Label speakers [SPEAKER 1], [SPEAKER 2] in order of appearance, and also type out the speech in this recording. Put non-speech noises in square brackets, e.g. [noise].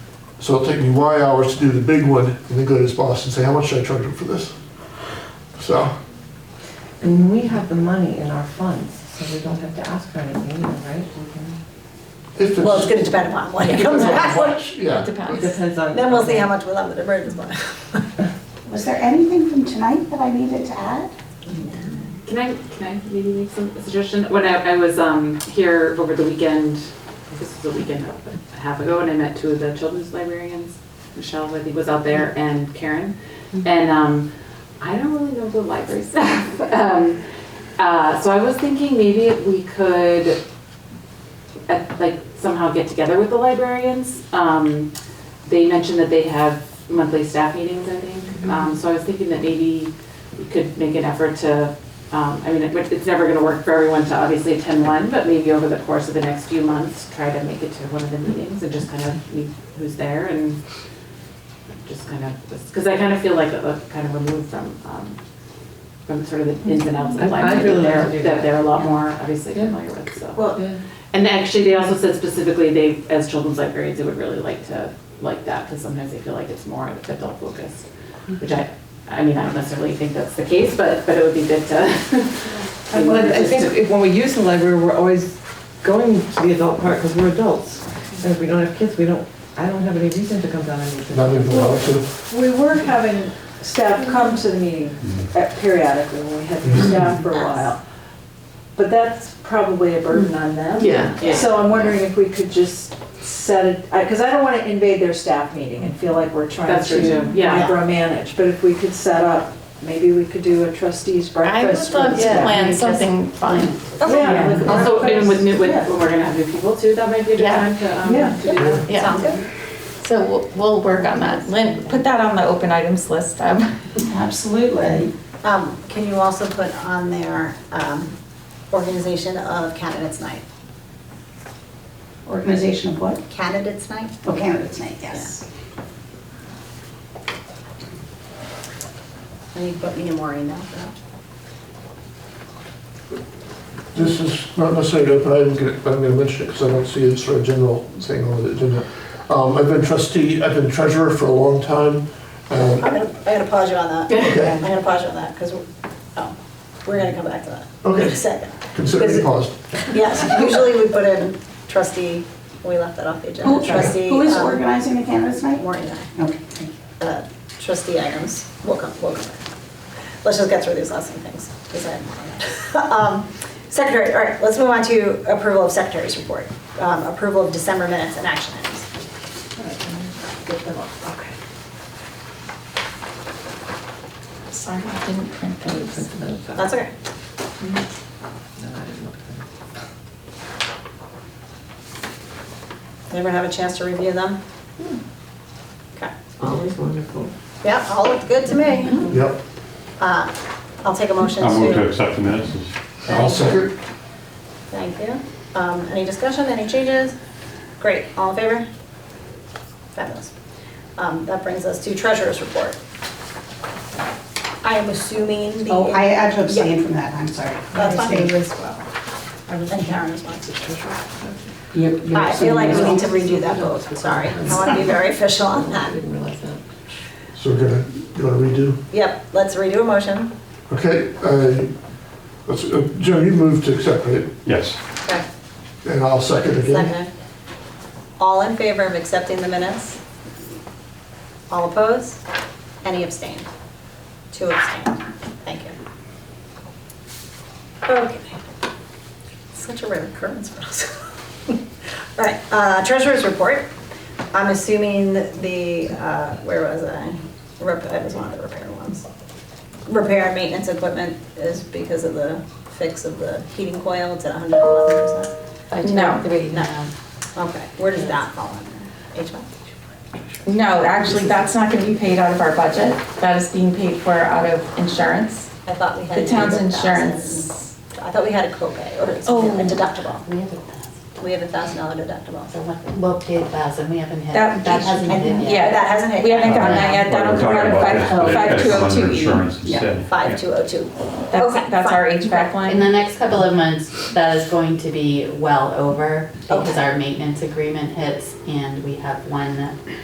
[SPEAKER 1] So it'll take me Y hours to do the big one and then go to his boss and say, how much should I charge him for this? So,
[SPEAKER 2] And we have the money in our funds, so we don't have to ask for anything, either, right? We can-
[SPEAKER 1] if it's.
[SPEAKER 3] Well, it's gonna depend upon when it comes
[SPEAKER 4] [laughs]
[SPEAKER 3] back.
[SPEAKER 1] Yeah.
[SPEAKER 2] It depends on.
[SPEAKER 3] Then we'll see how much we're left with the emergency fund.
[SPEAKER 4] Was there anything from tonight that I needed to add?
[SPEAKER 5] Can I, can I maybe make some a suggestion? When I, I was um, here over the weekend, this was a weekend a half ago, and I met two of the children's librarians. Michelle, I think, was out there, and Karen. And um, I don't really know the library [laughs] staff. Um, uh, So I was thinking maybe we could, uh, like, somehow get together with the librarians. Um, They mentioned that they have monthly staff meetings, I
[SPEAKER 2] Mm-hmm.
[SPEAKER 5] think. Um, So I was thinking that maybe we could make an effort to, um, I mean, it- it's never gonna work for everyone to obviously attend one, but maybe over the course of the next few months, try to make it to one of the meetings and just kind of meet who's there and just kind of, because I kind of feel like it was kind of removed from, um, from sort of the ins and outs
[SPEAKER 2] I'd-
[SPEAKER 5] of
[SPEAKER 2] I'd
[SPEAKER 5] life.
[SPEAKER 2] really like to
[SPEAKER 5] they're-
[SPEAKER 2] do
[SPEAKER 5] That
[SPEAKER 2] that.
[SPEAKER 5] they're a lot more obviously familiar with, so.
[SPEAKER 3] Well,
[SPEAKER 2] Yeah.
[SPEAKER 5] And actually, they also said specifically, they, as children's librarians, they would really like to, like that, because sometimes they feel like it's more adult focused, which I, I mean, I don't necessarily think that's the case, but, but it would be good to. [laughs]
[SPEAKER 2] Well, I I think if- when we use the library, we're always going to the adult part because we're adults. And if we don't have kids, we don't, I don't have any reason to come down and use it.
[SPEAKER 1] Not even allowed to.
[SPEAKER 6] We were having staff come to the meeting at- periodically when we had the staff for a while. But that's probably a burden on them.
[SPEAKER 5] Yeah, yeah.
[SPEAKER 6] So I'm wondering if we could just set it, because I don't want to invade their staff meeting and feel like we're trying
[SPEAKER 5] That's
[SPEAKER 6] to
[SPEAKER 5] true, too. Yeah.
[SPEAKER 6] micromanage. But if we could set up, maybe we could do a trustees
[SPEAKER 7] I would
[SPEAKER 6] breakfast.
[SPEAKER 7] love to
[SPEAKER 6] with staff.
[SPEAKER 7] plan something fun.
[SPEAKER 6] Yeah, like a
[SPEAKER 5] Also, and with new, with,
[SPEAKER 6] breakfast.
[SPEAKER 5] when we're gonna have new people too, that might be a good
[SPEAKER 7] Yeah.
[SPEAKER 5] time to, um,
[SPEAKER 6] Yeah.
[SPEAKER 5] to do that.
[SPEAKER 7] Yeah.
[SPEAKER 3] Sounds good.
[SPEAKER 7] So we'll, we'll work on that. Lynn, put that on the open items list. um,
[SPEAKER 4] Absolutely.
[SPEAKER 3] Um, Can you also put on there um, organization of candidates night?
[SPEAKER 4] Organization of what?
[SPEAKER 3] Candidates night?
[SPEAKER 4] Oh, candidates night, yes.
[SPEAKER 3] And you put me and Maureen down for that.
[SPEAKER 1] This is not necessarily open, I'm gonna, I'm gonna mention it because I don't see it sort of general thing on the agenda. Um, I've been trustee, I've been treasurer for a long time. Um,
[SPEAKER 3] I'm gonna, I'm gonna pause you on that.
[SPEAKER 1] Okay.
[SPEAKER 3] I'm gonna pause you on that, because, oh, we're gonna come back to that.
[SPEAKER 1] Okay.
[SPEAKER 3] In [laughs] a Second.
[SPEAKER 1] Consider
[SPEAKER 3] Is
[SPEAKER 1] me
[SPEAKER 3] it-
[SPEAKER 1] paused.
[SPEAKER 3] Yes, usually we put in trustee, we left that off the agenda, trustee.
[SPEAKER 4] Who is
[SPEAKER 3] um,
[SPEAKER 4] organizing the candidates night?
[SPEAKER 3] Maureen and I,
[SPEAKER 4] Okay, thank you.
[SPEAKER 3] uh, trustee items, we'll come, we'll come back. Let's just get through these last few things, because I have more [laughs] on that. Um, Secretary, all right, let's move on to approval of secretary's report, um, approval of December minutes and action items.
[SPEAKER 6] Get them up, okay.
[SPEAKER 7] Sorry, I didn't print those.
[SPEAKER 3] That's okay. Did everyone have a chance to review them?
[SPEAKER 7] Hmm.
[SPEAKER 3] Okay.
[SPEAKER 2] Always wonderful.
[SPEAKER 3] Yep, all looked good to me.
[SPEAKER 1] Yep.
[SPEAKER 3] Uh, I'll take a motion to.
[SPEAKER 8] I'll move to accept the minutes.
[SPEAKER 1] I'll second.
[SPEAKER 3] Thank you. Um, Any discussion, any changes? Great, all in favor? Fabulous. Um, That brings us to treasurer's report. I am assuming the.
[SPEAKER 4] Oh, I had to abstain from that, I'm sorry.
[SPEAKER 3] That's fine.
[SPEAKER 4] I abstained as well.
[SPEAKER 3] And Karen as well.
[SPEAKER 2] You- you
[SPEAKER 3] I feel like we need to
[SPEAKER 2] abstained
[SPEAKER 3] redo
[SPEAKER 2] as
[SPEAKER 3] that
[SPEAKER 2] well?
[SPEAKER 3] vote, sorry. I want to be very official on
[SPEAKER 2] I
[SPEAKER 3] that.
[SPEAKER 2] didn't realize that.
[SPEAKER 1] So we're gonna, you wanna redo?
[SPEAKER 3] Yep, let's redo a motion.
[SPEAKER 1] Okay, uh, let's, uh, Joe, you moved to accept it
[SPEAKER 8] Yes.
[SPEAKER 3] Okay.
[SPEAKER 1] and I'll second again.
[SPEAKER 3] Second. All in favor of accepting the minutes? All opposed? Any abstain? Two abstain. Thank you. Okay. Such a rare occurrence for us. All [laughs] right, uh, treasurer's report. I'm assuming the, uh, where was I? Rep- It was one of the repair ones. Repair and maintenance equipment is because of the fix of the heating coil, it's at 111%.
[SPEAKER 7] I took out three.
[SPEAKER 3] No. Okay, where does that fall under? HVAC?
[SPEAKER 7] [laughs] No, actually, that's not gonna be paid out of our budget. That is being paid for out of insurance.
[SPEAKER 3] I thought we had.
[SPEAKER 7] The town's
[SPEAKER 3] 8,000.
[SPEAKER 7] insurance.
[SPEAKER 3] I thought we had a copay or
[SPEAKER 7] Oh.
[SPEAKER 3] a deductible.
[SPEAKER 9] We haven't passed,
[SPEAKER 3] We have a thousand dollar deductible.
[SPEAKER 9] so what, well, paid pass, and we haven't had,
[SPEAKER 7] That- that
[SPEAKER 9] that hasn't
[SPEAKER 3] hasn't-
[SPEAKER 9] been
[SPEAKER 7] Yeah.
[SPEAKER 9] yet.
[SPEAKER 3] That hasn't hit.
[SPEAKER 7] We haven't gotten that yet.
[SPEAKER 8] But
[SPEAKER 7] That'll
[SPEAKER 8] we're
[SPEAKER 7] come out
[SPEAKER 8] talking
[SPEAKER 7] of
[SPEAKER 8] about
[SPEAKER 7] five,
[SPEAKER 8] this, but it-
[SPEAKER 7] five
[SPEAKER 8] that's
[SPEAKER 7] two oh
[SPEAKER 8] under
[SPEAKER 7] two E.
[SPEAKER 8] Insurance instead.
[SPEAKER 3] Five two oh two.
[SPEAKER 7] That's, that's our HVAC
[SPEAKER 9] In
[SPEAKER 7] line.
[SPEAKER 9] the next couple of months, that is going to be well over, because
[SPEAKER 3] Okay.
[SPEAKER 9] our maintenance agreement hits, and we have one